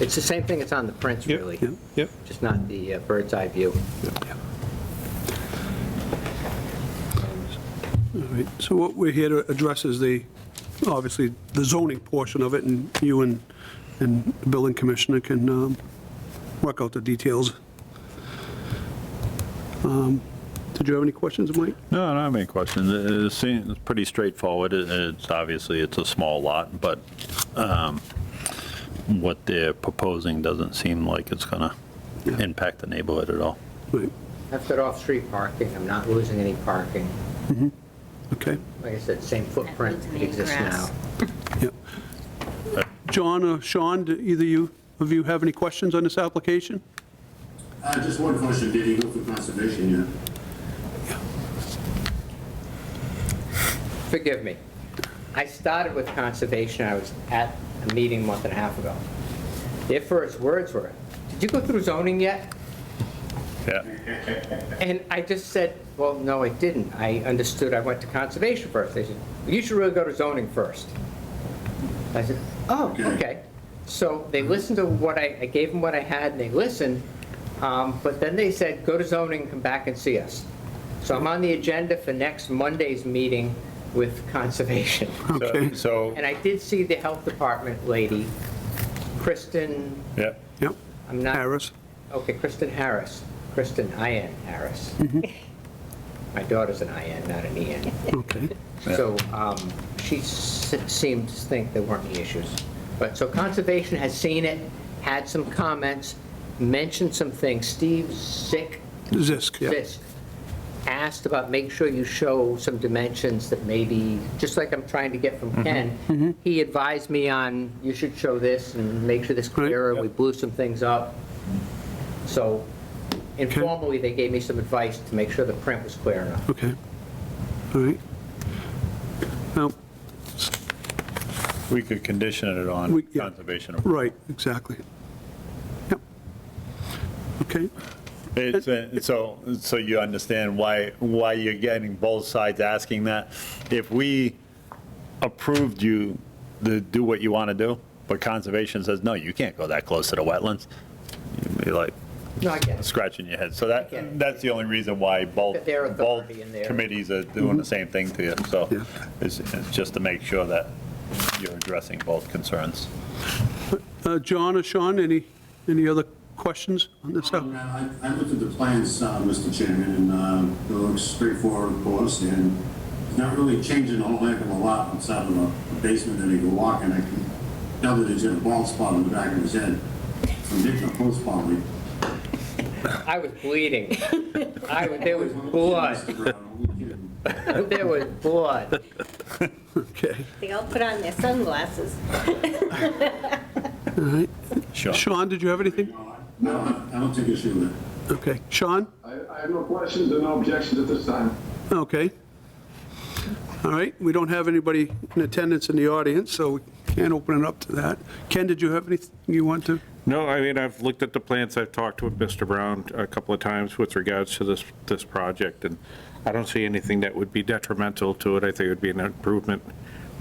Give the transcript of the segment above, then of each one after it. It's the same thing that's on the prints, Yep, really, yep, yep. just not the uh, bird's eye view. All right, so what we're here to address is the, obviously, the zoning portion of it, and you and, and the building commissioner can um, work out the details. Um, Did you have any questions, Mike? No, I don't have any questions. It- It seems pretty straightforward. It- It's, obviously, it's a small lot, but um, what they're proposing doesn't seem like it's going Yeah. to impact the neighborhood at all. Right, I've got off-street parking, I'm not losing any parking. okay, Like I said, same footprint losing that any exists now. grass. yep. John or Sean, do either you, of you have any questions on this application? Uh, Just one question, did he go for conservation yet? Forgive me. I started with conservation, I was at a meeting a month and a half ago. Their first words were, "Did you go through zoning yet?" Yeah. And I just said, well, no, I didn't. I understood I went to conservation first. They said, you should really go to zoning first. I said, oh, okay. So they listened to what I, I gave them what I had, and they listened, um, but then they said, go to zoning, come back and see us. So I'm on the agenda for next Monday's meeting with conservation. Okay, So, And I did see the health department lady, Kristen, yeah, yep, I'm not. Harris, Okay, Kristen Harris. Kristen IN Harris. My daughter's an IN, not an EN. okay, So um, she s- seemed to think there weren't any issues. But, so Conservation has seen it, had some comments, mentioned some things. Steve Zick, Zisk, yeah. Zisk, asked about, make sure you show some dimensions that maybe, just like I'm trying to get Mm-hmm. from Ken, he advised me on, you should show this and make sure this Right. clearer. We blew some things up. So informally, they gave me some advice to make sure the print was clear enough. Okay, all right. Now, We could condition it on We- yeah. conservation. Right, exactly. Yep. Okay, it's, uh, so, so you understand why, why you're getting both sides asking that. If we approved you to do what you want to do, but conservation says, no, you can't go that close to the wetlands, you'd be like No, I get it. scratching your head. So Yeah. that, that's the only reason why both, Their both authority and their- committees are doing the same thing to you. So Yeah. it's, it's just to make sure that you're addressing both concerns. Uh, John or Sean, any, any other questions on this? Um, I I looked at the plans, uh, Mr. Chairman, and um, it looks straightforward, of course, and it's not really changing a whole heck of a lot outside of a basement that he can walk in. I can tell that he's got a bald spot on the back of his head from hitting a post probably. I was bleeding. I, was- there was blood. There was blood. Okay, They all put on their sunglasses. all right. Sure. Sean, did you have anything? No, I I don't take issue with it. Okay, Sean? I I have no questions and no objections at this time. Okay. All right, we don't have anybody in attendance in the audience, so we can't open it up to that. Ken, did you have anything you want to? No, I mean, I've looked at the plants, I've talked with Mr. Brown a couple of times with regards to this, this project, and I don't see anything that would be detrimental to it. I think it would be an improvement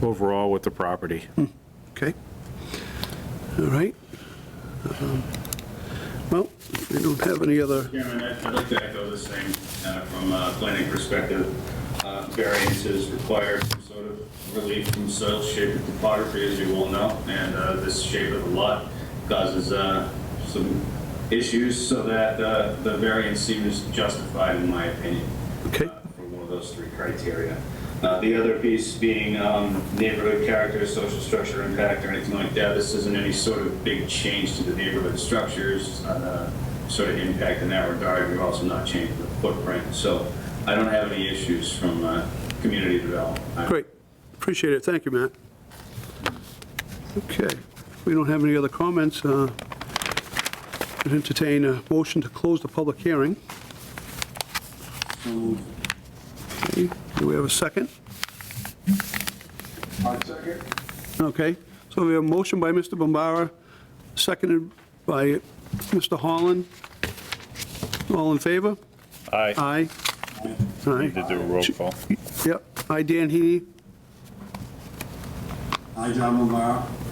overall with the property. Okay. All right. Um, Well, we don't have any other, Chairman, I'd I'd like to echo the same uh, from a planning perspective. Uh, Variances require some sort of relief from soil shape and topography, as you well know, and uh, this shape of the lot causes uh, some issues, so that uh, the variance seems justified, in my opinion okay, uh, for one of those three criteria. Uh, The other piece being um, neighborhood character, social structure impact, or anything like that. This isn't any sort of big change to the neighborhood structures, It's not a sort of impact in that regard. We're also not changing the footprint. So I don't have any issues from uh, community development. I- great. Appreciate it, thank you, Matt. Okay, if we don't have any other comments, uh, I'd entertain a motion to close the public hearing. So, Okay, Do we have a second? All second. Okay, so we have a motion by Mr. Bombara, seconded by Mr. Holland. All in favor? I Aye. Aye. need to do a roll call. Yep, aye, Dan Heaney, I, John Mombara,